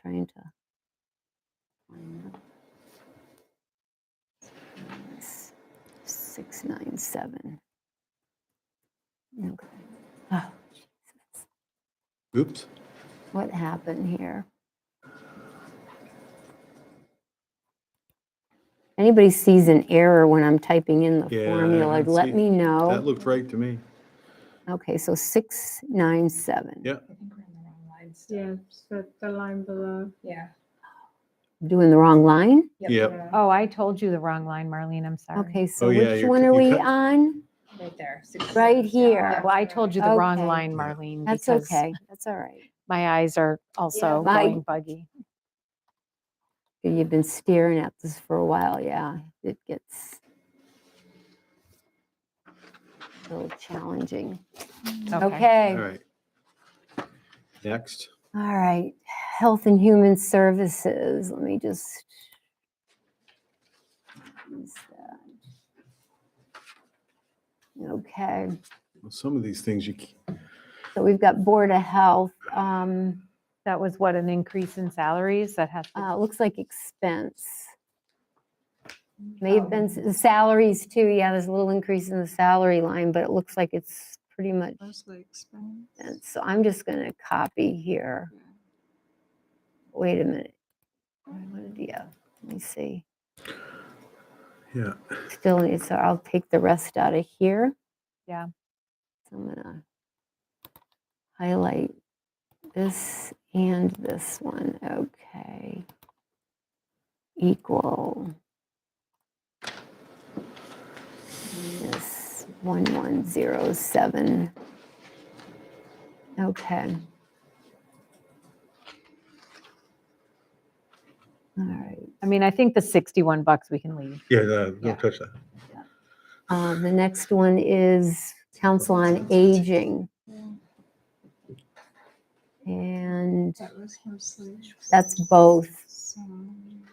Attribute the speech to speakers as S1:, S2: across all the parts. S1: trying to find that. Six nine seven. Okay. Oh, Jesus.
S2: Oops.
S1: What happened here? Anybody sees an error when I'm typing in the
S2: Yeah, I
S1: formula,
S2: don't see-
S1: let me
S2: That
S1: know.
S2: looked right to me.
S1: Okay, so six nine seven.
S2: Yeah.
S3: I think we're in the wrong line still.
S4: Yeah, so the line below.
S3: Yeah.
S1: Doing the wrong line?
S2: Yep.
S3: yeah,
S5: Oh, I told you the wrong line, Marlene. I'm sorry.
S1: Okay, so
S2: Oh, yeah,
S1: which
S2: you're
S1: one
S2: c-
S1: are
S2: you
S1: we
S2: cut-
S1: on?
S3: Right there. six,
S1: Right
S3: seven,
S1: here.
S3: yeah,
S5: Well, I
S3: right.
S5: told you the wrong
S1: Okay.
S5: line,
S2: Yeah.
S5: Marlene.
S1: That's
S5: because
S1: okay. That's all right.
S5: My eyes are also
S1: My-
S5: going buggy.
S1: You've been staring at this for a while, yeah. It gets a little challenging.
S2: All
S1: Okay,
S2: right. Next.
S1: all right. Health and Human Services, let me just. what's that? Okay,
S2: Well, Some of these things you, c-
S1: so we've got Board of Health. um,
S5: That was what, an increase in salaries that has to,
S1: Uh, looks like expense. May have been s- salaries too. Yeah, there's a little increase in the salary line, but it looks like it's pretty much.
S4: Mostly
S1: And
S4: expense.
S1: so I'm just gonna copy here. Wait a minute. What did, yeah, let me see.
S2: yeah.
S1: Still need, so I'll take the rest out of here.
S5: Yeah.
S1: So I'm gonna highlight this and this one. Okay. Equal. Minus one one zero seven. Okay. All right.
S5: I mean, I think the 61 bucks we can leave.
S2: Yeah, no,
S3: Yeah.
S2: don't touch that.
S1: Uh, The next one is Council on Aging,
S4: Yeah,
S1: and
S4: That was mostly.
S1: that's both.
S4: some-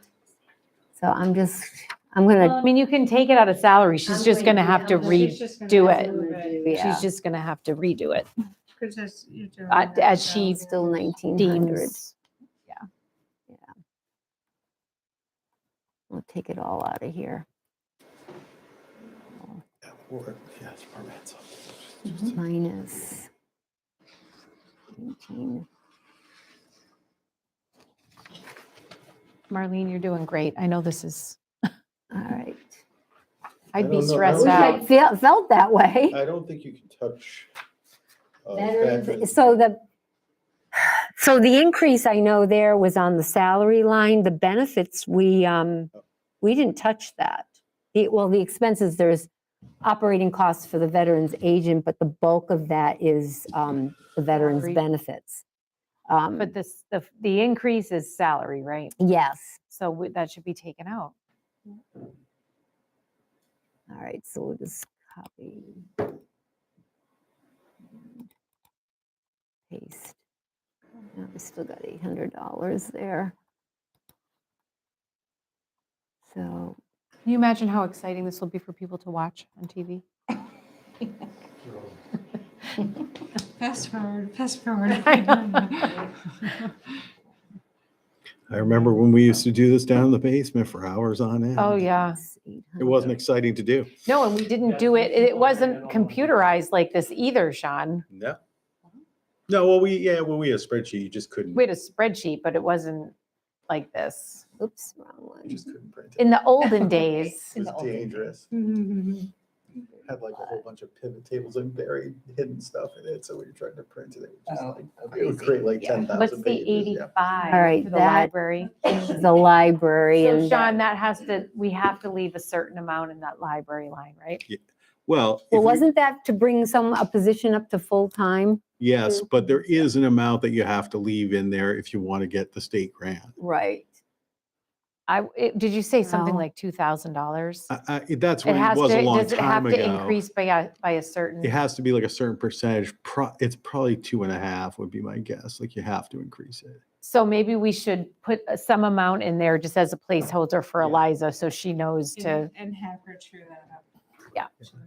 S1: So I'm just, I'm gonna,
S5: I mean, you can take it out of salary. She's just going to have to
S4: She's
S5: read,
S4: just gonna
S5: redo
S4: have
S5: it.
S4: to move it,
S1: yeah,
S5: she's just going to have to redo it.
S4: 'cause as you're doing
S5: Uh,
S4: that
S5: as she
S4: without
S1: still
S4: the-
S1: 1,900.
S5: Deems,
S1: I'll take it all out of here. Minus. 19.
S5: Marlene, you're doing great. I know this is,
S1: All right.
S5: I'd
S6: don't
S5: be
S6: know. That
S5: stressed
S6: was-
S5: out.
S1: I felt- Felt that way.
S6: I don't think you can touch.
S2: Oh,
S6: uh,
S1: Better-
S6: background.
S1: So the, so the increase I know there was on the salary line, the benefits, we, um, we didn't touch that. The- Well, the expenses, there's operating costs for the veterans agent, but the bulk of that is um, the veterans
S5: Salary.
S1: benefits. Um,
S5: But this, the, the increase is salary, right?
S1: Yes,
S5: So we- that should be taken out.
S1: all right, so we'll just copy. Paste. Now we still got eight hundred dollars there. So,
S5: Can you imagine how exciting this will be for people to watch on TV?
S4: Fast forward, fast forward.
S5: I know.
S2: I remember when we used to do this down in the basement for hours on end.
S5: Oh, yeah.
S1: it's
S2: It
S1: 800.
S2: wasn't exciting to do.
S5: No, and we didn't do it, it wasn't computerized like this either, Sean.
S2: No. No, well, we, yeah, well, we had a spreadsheet, you just couldn't,
S5: We had a spreadsheet, but it wasn't like this.
S1: Oops, wrong one.
S6: You just couldn't print it.
S5: In the olden days,
S6: It
S3: In the
S6: was
S3: old days.
S6: dangerous.
S4: Mhm.
S6: Had like a whole bunch of pivot tables and buried hidden stuff in it. So when you're trying to print it, it would just
S3: Oh,
S6: like, it would
S3: crazy.
S6: create like
S3: Yeah.
S6: ten thousand
S5: what's the
S6: pages.
S5: 85
S6: yeah.
S1: right,
S5: for the
S1: that-
S5: library?
S1: The library
S5: So
S1: and.
S5: Sean, that has to, we have to leave a certain amount in that library line, right?
S2: well. if
S1: Well,
S2: you-
S1: wasn't that to bring some, a position up to full-time?
S2: Yes,
S1: to-
S2: but there is an amount that you have to leave in there if you want to get the state grant.
S1: Right.
S5: I, it- did you say something
S1: No.
S5: like $2,000?
S2: I, I, that's
S5: It
S2: what Uh, it
S5: has to,
S2: was a long
S5: does it have
S2: time
S5: to
S2: ago.
S5: increase by a, by a certain?
S2: It has to be like a certain percentage, pro, it's probably two and a half would be my guess, like you have to increase it.
S5: So maybe we should put a- some amount in there just as a placeholder for
S2: Yeah.
S5: Eliza, so she knows to,
S4: And and have her chew that up.
S5: Yeah.
S4: To the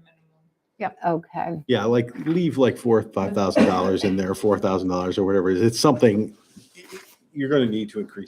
S4: minimum.
S1: Okay,
S2: Yeah, like leave like four, five thousand dollars in there, four thousand dollars or whatever it is. It's something you're going to need to increase